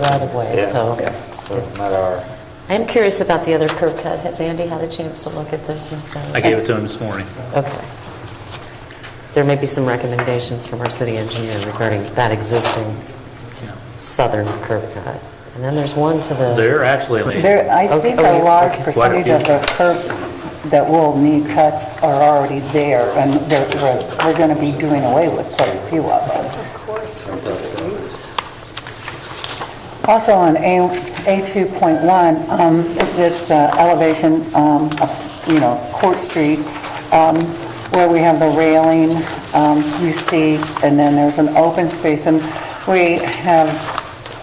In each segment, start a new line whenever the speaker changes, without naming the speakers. right-of-way,
Yeah,
so.
yeah, So it's not our,
I'm curious about the other curb cut. Has Andy had a chance to look at this and say?
I gave it to him this morning.
Okay. There may be some recommendations from our city engineer regarding that existing
Yeah.
southern curb cut. And then there's one to the,
They're actually,
There, I
Okay,
think
okay,
a large
okay.
percentage of the curb that will need cuts are already there, and they're, we're, we're gonna be doing away with quite a few of them. Also on A, A2.1, um, this uh, elevation, um, of, you know, Court Street, um, where we have the railing, um, you see, and then there's an open space, and we have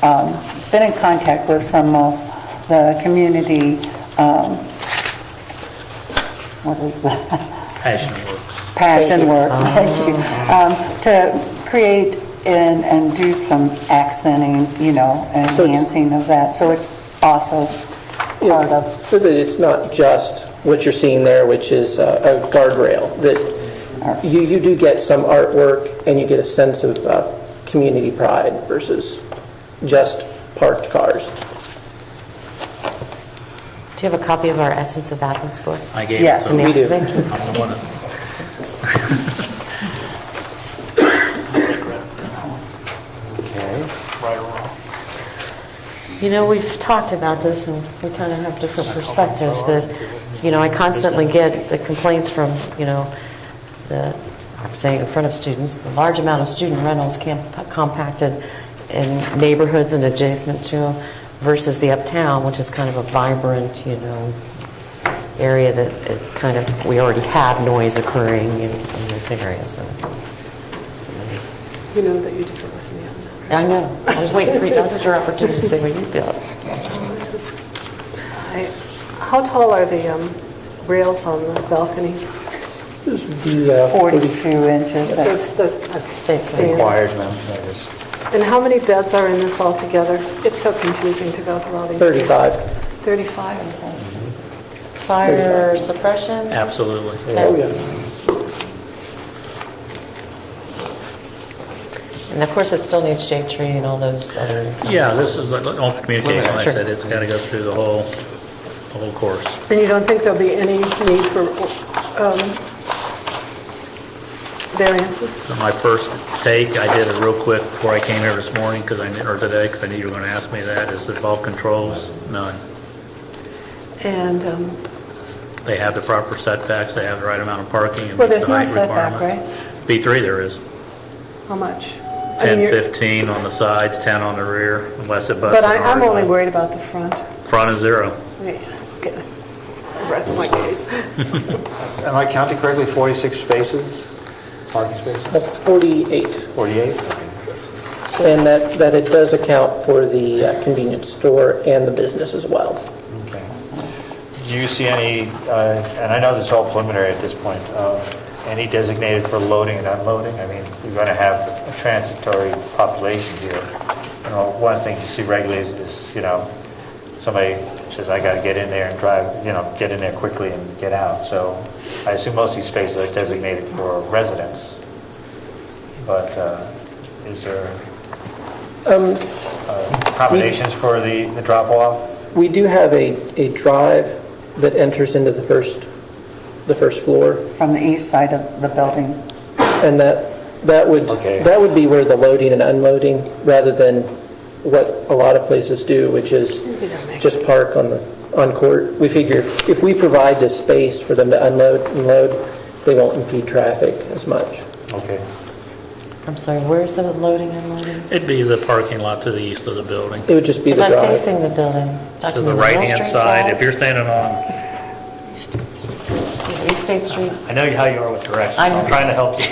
um, been in contact with some of the community, um, what is that?
passion works.
passion work, thank you, um, to create and, and do some accenting, you know, and
So it's-
enhancing of that. So it's also part of,
So that it's not just what you're seeing there, which is uh, a guardrail, that you, you do get some artwork and you get a sense of uh, community pride versus just parked cars.
do you have a copy of our Essence of Athens book?
I gave it
Yes.
to him.
We do.
Thank you.
I'm the one that-
okay.
You know, we've talked about this, and we kind of have different perspectives, but, you know, I constantly get the complaints from, you know, the, I'm saying in front of students, the large amount of student rentals camp- compacted in neighborhoods and adjacent to them versus the uptown, which is kind of a vibrant, you know, area that it kind of, we already have noise occurring in in this area, so.
You know that you differ with me on that.
I know, I was waiting for you, that was your opportunity to say what you feel.
I- How tall are the um, rails on the balconies?
This would be uh,
42 inches. That's-
Those- the-
Stay for
Stand.
Requires minimum notice.
And how many beds are in this altogether? It's so confusing to go through all these.
35.
35?
Fire suppression?
Absolutely.
Oh, yeah.
And of course, it still needs shade tree and all those other,
Yeah, this is like open communication. Like I
Sure.
said, it's got to go through the whole, the whole course.
And you don't think there'll be any need for um, variances?
So My first take, I did it real quick before I came here this morning, because I, knew- or today, because I knew you were going to ask me that, is that all controls, none.
And, um,
They have the proper setbacks, they have the right amount of parking. and
well,
meet
there's
the
no
height
setback,
requirement.
right?
B3 there is.
How much? I mean,
10,
you're-
15 on the sides, 10 on the rear, unless it butts
But
an
I- I'm
orange
only
line.
worried about the front.
Front is zero.
Wait, get a breath in my case.
Am I counting correctly, 46 spaces, parking spaces?
uh, 48.
48?
And that, that it does account for the uh, convenience store and the business as well.
Okay. Do you see any, uh, and I know this is all preliminary at this point, uh, any designated for loading and unloading? I mean, you're going to have a transitory population here. You know, one of the things you see regularly is- is, you know, somebody says, I got to get in there and drive, you know, get in there quickly and get out. So I assume most of these spaces are designated for residents, but uh, is there uh, accommodations for the the drop-off?
We do have a, a drive that enters into the first, the first floor,
From the east side of the building.
and that, that would,
Okay.
that would be where the loading and unloading, rather than what a lot of places do, which is just park on the, on court. We figure if we provide the space for them to unload and load, they won't impede traffic as much.
Okay.
I'm sorry, where's the loading and unloading?
It'd be the parking lot to the east of the building.
It would just be
Is
the
that
drive.
facing the building?
To the right-hand side, if you're standing on,
East State Street,
I know how you are with directions, so
I'm-
I'm trying to help you.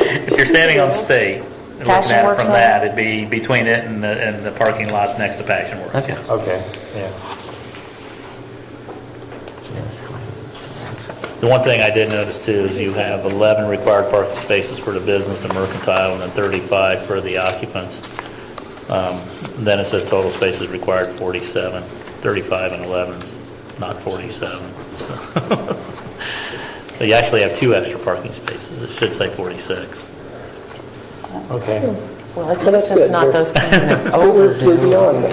If you're standing on State, and looking
Passion
at it
Works
from
on
that, it'd be between it and the, and the parking lot next to Passion Works,
Okay.
yes.
Okay, yeah.
The one thing I did notice too is you have 11 required parking spaces for the business and mercantile and then 35 for the occupants. Um, Then it says total spaces required 47, 35 and 11 is not 47. so. So you actually have two extra parking spaces. It should say 46.
Okay.
Well, at
Well,
least it's
that's good.
not
We're-
those kind that
We're
overdo.
we're beyond that.